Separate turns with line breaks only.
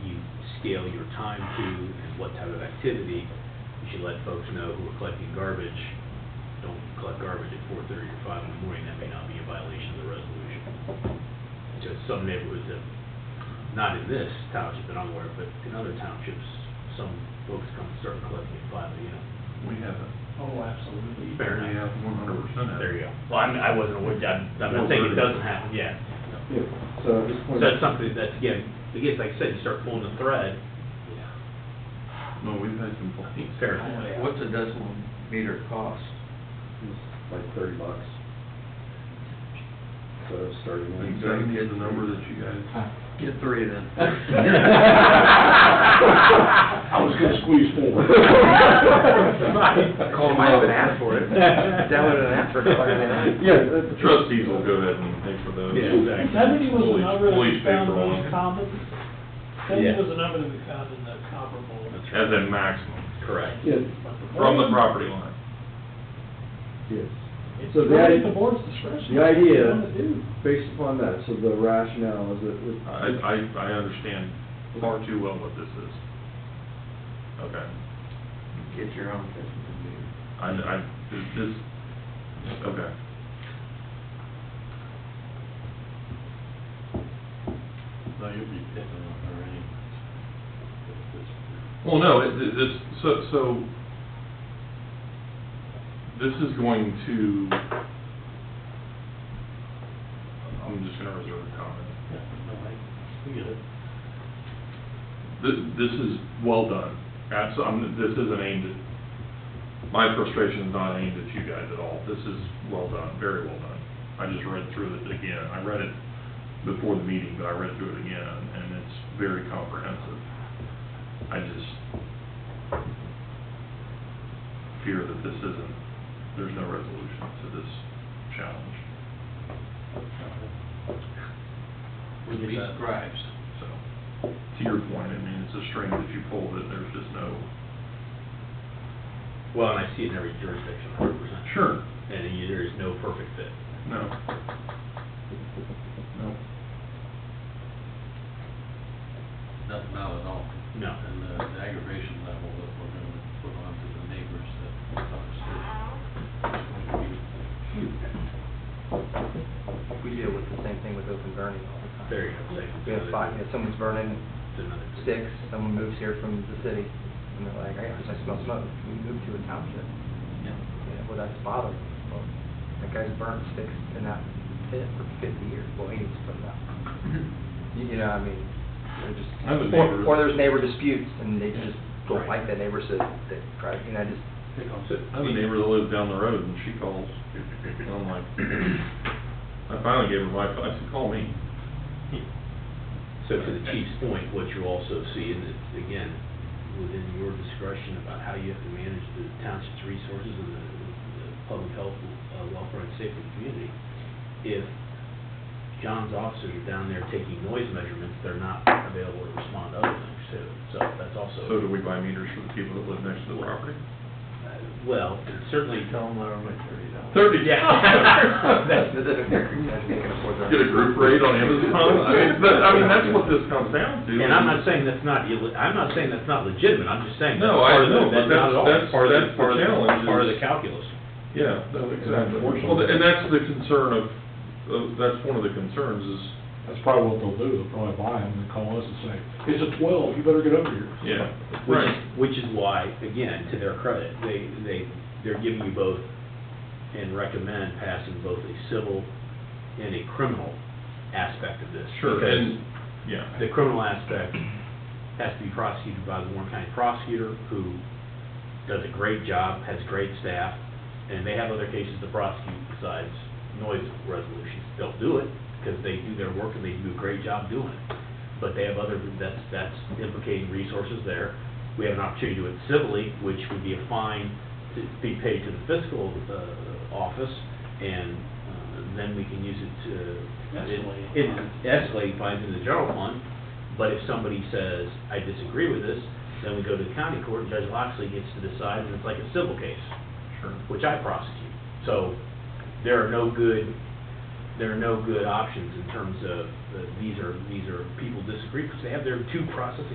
scale your time to and what type of activity. You should let folks know who are collecting garbage, don't collect garbage at four thirty or five in the morning, that may not be a violation of the resolution. Just some neighborhoods have, not in this township that I'm aware of, but in other townships, some folks come and start collecting at five AM.
We have it.
Oh, absolutely.
Fair
We
enough.
have one hundred percent of it.
There you go. Well, I'm, I wasn't aware, I'm, I'm not saying it doesn't happen, yeah.
Yeah, so at this
So
point.
that's something that's, again, again, like I said, you start pulling the thread,
No, we've had complaints.
fair.
What's a decimal meter cost?
It's like thirty bucks. So starting. at-
Like, Seventy is the number that you guys,
Get three then.
I was gonna squeeze four.
I called him up and asked for it. That would have asked for it.
Yeah. that-
the trustees will go ahead and pay for those.
Yeah, exactly.
Seventy was a
Police-
number that we
police pay
found
for
most
one.
common. Seventy
Yeah.
was a number that we found in the comparable.
As a maximum,
Correct.
Yes,
from the property line.
yes.
It's
So the
really at
idea-
the board's discretion.
the
what they
idea-
wanna do.
Based upon that, so the rationale is that with.
I, I, I understand far too well what this is. Okay,
Get your own decimal meter.
I, I, this, this, okay.
No, you'll be picking on her anyways.
Well, no, it, it- this, so, so, this is going to, I'm just gonna reserve a comment.
Yeah, no, I, we get it.
This, this is well done. Abso, I'm, this isn't aimed at, my frustration's not aimed at you guys at all. This is well done, very well done. I just read through it again. I read it before the meeting, but I read through it again, and it's very comprehensive. I just fear that this isn't, there's no resolution to this challenge,
We
Would
did
be
that.
scribes.
so. To your point, I mean, it's a string that you pull that there's just no,
Well, and I see it in every jurisdiction, hundred percent.
sure,
And you- there is no perfect fit.
No. No.
Not, not at all.
No.
And uh, the aggravation level that we're gonna put on to the neighbors that upstairs is going to be
We deal with the same thing with open burning all the time.
There you go. Say-
We have five, if someone's burning
It's another-
sticks, someone moves here from the city, and they're like, I, I smell smoke, we moved to a township.
Yeah.
Yeah, well, that's bothering me. Well, That guy's burnt sticks in that pit for fifty years, well, he needs to put it out. You you know, I mean, they're just.
I have a
or-
neighbor-
Or there's neighbor disputes, and they just don't
Right.
like that neighbor, so they try, to- you know, just,
pick on.
I have a neighbor that lives down the road and she calls, and I'm like, I finally gave her my, I said, call me.
So to the chief's point, what you also see, and it's, again, within your discretion about how you have to manage the township's resources and the, the public health, uh, welfare and safety of the community. If John's officers are down there taking noise measurements, they're not available to respond to other things too. So that's also.
So do we buy meters for the people that live next to the property?
Uh, Well, certainly,
tell them they're only thirty dollars.
Thirty,
That's the difference, they can afford their.
Get a group rate on Amazon, I mean, that, I mean, that's what this comes down to.
and I'm not saying that's not, illi- I'm not saying that's not legitimate, I'm just saying. that's
No, I
part of the-
know, but
not at all
that's- that's-
part of the-
that's the
part of
challenge
Part of
is-
the calculus.
Yeah,
No,
exactly.
exactly.
Well, th- and that's the concern of, of, that's one of the concerns is,
That's probably what they'll do, they'll probably buy them and call us and say, it's a twelve, you better get over here.
yeah.
Which, which is why, again, to their credit, they, they, they're giving you both and recommend passing both a civil and a criminal aspect of this.
Sure,
because
and, yeah.
the criminal aspect has to be prosecuted by the Warren County prosecutor, who does a great job, has great staff, and they have other cases to prosecute besides noise resolutions. They'll do it, because they do their work and they do a great job doing it. But they have other, that's, that's implicating resources there. We have an opportunity to do it civilly, which would be a fine to be paid to the fiscal, uh, office, and uh, then we can use it to.
Escalate.
It escalate fines in the general fund, but if somebody says, I disagree with this, then we go to the county court, and Judge Loxley gets to decide, and it's like a civil case,
Sure.
which I prosecute. So there are no good, there are no good options in terms of, uh, these are, these are, people disagree because they have their due process